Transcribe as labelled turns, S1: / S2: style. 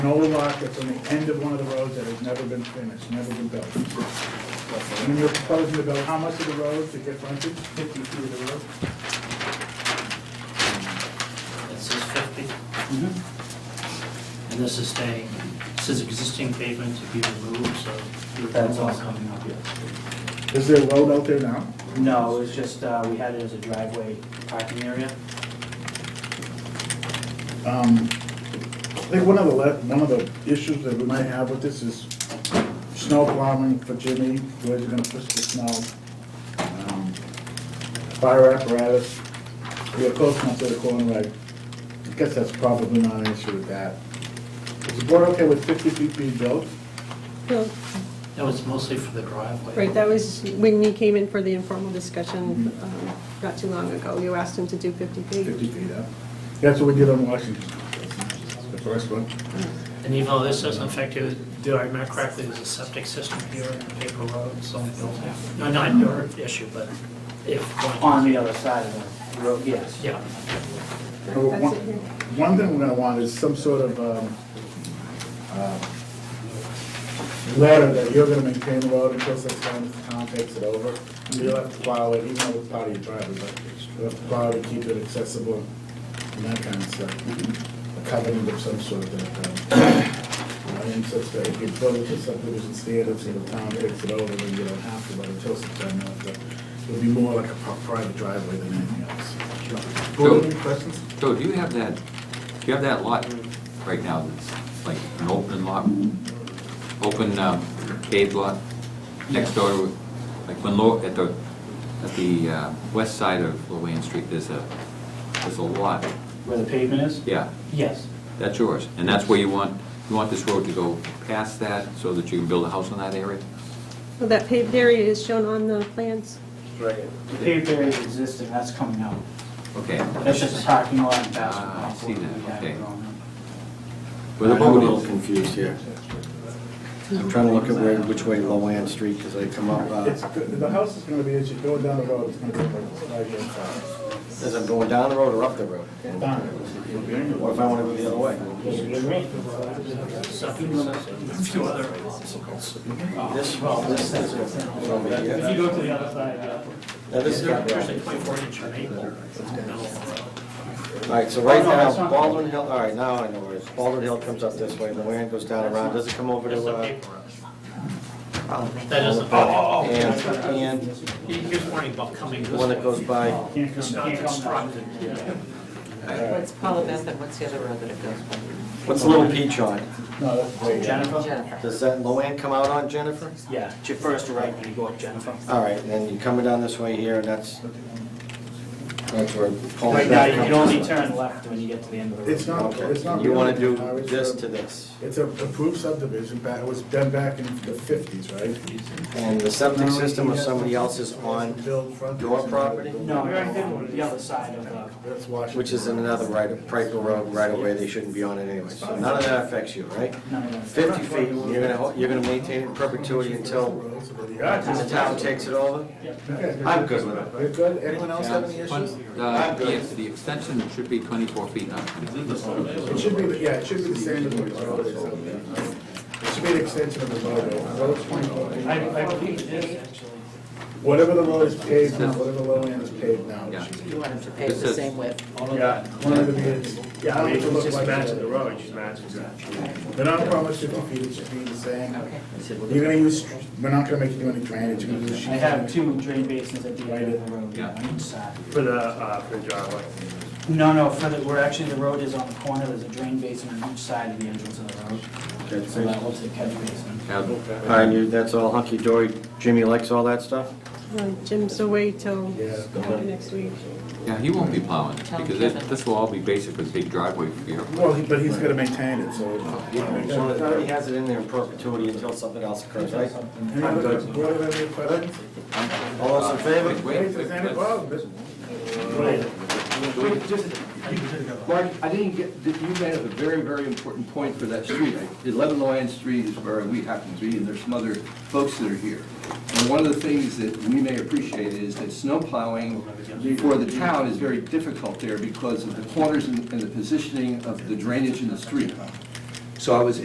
S1: an old lot that's on the end of one of the roads that has never been finished, never been built. And you're proposing to build how much of the road to get frontage?
S2: Fifty feet of the road.
S3: This is fifty. And this is staying, this is existing pavement to be removed, so. you're-
S2: That's all coming up, yes.
S1: Is there a road out there now?
S2: No, it was just, uh, we had it as a driveway parking area.
S1: Um, I think one of the, le- one of the issues that we might have with this is snow plowing for Jimmy, where's he gonna push the snow? um, Fire apparatus, we are close enough to the corner, I guess that's probably not an issue with that. Is the board okay with fifty feet being built?
S4: Well,
S3: That was mostly for the driveway.
S4: Right, that was when you came in for the informal discussion um, not too long ago. You asked him to do 50 feet.
S1: Fifty feet up? That's what we did on Washington, the first one.
S3: And even though this doesn't affect you, do I remember correctly, there's a septic system here in paper road, so. No, not your issue, but if.
S2: On the other side of the road, yes.
S3: Yeah.
S1: Well,
S4: That's
S1: One
S4: it here.
S1: one thing we're gonna want is some sort of, um, uh, letter that you're gonna maintain the road until such time as the town takes it over. You'll have to plow it, even though it's part of your driveway, but you'll have to plow it, to keep it accessible, and that kind of stuff. A covenant of some sort that, um, I mean, such that if you build it to subdivision standards and the town takes it over, then you don't have to, but until such time, you'll have to. It'll be more like a pri- private driveway than anything else. Board, any questions?
S5: Joe, do you have that, do you have that lot right now that's like an open lot, open um, paved lot next door to, like when, Lo- at the, at the uh, west side of Luann Street, there's a, there's a lot,
S2: Where the pavement is?
S5: yeah,
S2: Yes.
S5: that's yours. And that's where you want, you want this road to go past that so that you can build a house on that area?
S4: Well, that paved area is shown on the plans.
S2: Right. The paved area is existing, that's coming out.
S5: Okay.
S2: That's just a parking lot and basketball.
S5: Ah, I see that,
S2: We have
S5: okay.
S2: it on.
S5: Where the
S6: I'm a little
S5: boat is,
S6: confused here. I'm trying to look at where, which way Loanne Street, because I come up,
S1: It's,
S6: uh,
S1: the house is gonna be, as you go down the road, it's gonna be like right here inside.
S6: as I'm going down the road or up the road. What if I want to go the other way?
S3: A few other obstacles.
S6: This, well, this is over
S2: If
S6: here.
S2: you go to the other side, yeah.
S6: Now, this is not
S3: There's a
S6: right.
S3: twenty-four inch maple in the middle of the road.
S6: All right, so right
S2: Oh, no, that's
S6: now,
S2: not-
S6: Baldwin Hill, all right, now I know where it is. Baldwin Hill comes up this way, Loanne goes down around, does it come over
S3: That's a
S6: to, uh,
S3: paper road. That is a. Oh,
S6: and, and
S3: Here's warning about coming this
S6: the one that goes
S3: way.
S6: by,
S2: Can't
S3: It's
S2: come,
S3: not
S2: can't come down.
S3: constructed, yeah.
S7: What's Paula Beth and what's the other road that it goes by?
S6: what's Little Peach on?
S1: No, that's great.
S2: Uh, Jennifer?
S7: Jennifer.
S6: Does that Loanne come out on Jennifer?
S2: Yeah, ju- first right, then you go up Jennifer.
S6: All right, and then you're coming down this way here, and that's, that's where Paul
S2: Right now, you
S6: Beth
S2: can
S6: comes
S2: only turn left when you get to the end of the road.
S1: It's not- It's
S6: Okay,
S1: not
S6: you want to
S1: really-
S6: do this to this.
S1: It's a approved subdivision, back, it was done back in the fifties, right?
S6: And the septic system of somebody else is on,
S1: Built front-
S6: your property?
S2: No, we already did one, the other side of uh, the.
S1: That's Washington.
S6: which is in another right, Piper Road right away, they shouldn't be on it anyway. So none of that affects you, right?
S2: No, no, no.
S6: Fifty feet, you're gonna, hol- you're gonna maintain it in perpetuity until the town takes it over? I'm good with it.
S1: We're good, anyone else have any issues?
S5: Uh, yes, the extension should be 24 feet, not 20.
S1: It should be, the- yeah, it should be the same as what the road is out there. It should be an extension of the road, the road's twenty-four feet.
S2: I, I believe it is actually.
S1: Whatever the road is paved now, whatever the low end is paved now, it
S5: Yeah.
S1: should be.
S7: You want them to pave the same width.
S1: Yeah, one of the bids. Yeah, I mean, you just imagine the road, you imagine that. But I promise fifty feet, it should be the same. You're gonna use, we're not gonna make you do any drainage, you're gonna use.
S2: I have two drain basins at the end of the road,
S5: Yeah.
S2: on each side.
S8: For the, uh, for the driveway.
S2: No, no, for the, we're actually, the road is on the corner, there's a drain basin on each side of the entrance of the road. So that will take catch basin.
S5: Have-
S6: And you, that's all hunky-dory, Jimmy likes all that stuff?
S4: Uh, Jim's away till
S1: Yeah.
S4: after next week.
S5: Yeah, he won't be plowing,
S7: Tell
S5: because
S7: Kevin.
S5: it- this will all be basically big driveway for you.
S1: Well, he- but he's gonna maintain it, so.
S6: Oh, So it already has it in there in perpetuity until something else occurs, right?
S1: Any other, board have any questions?
S6: All those in favor?
S5: Wait,
S1: If there's any
S5: let's-
S1: problems,
S9: Wait, just, Mark, I didn't get, did- you made up a very, very important point for that street. I- 11 Loyon Street is where we happen to be, and there's some other folks that are here. And one of the things that we may appreciate is that snow plowing for the town is very difficult there because of the corners and and the positioning of the drainage in the street. So I was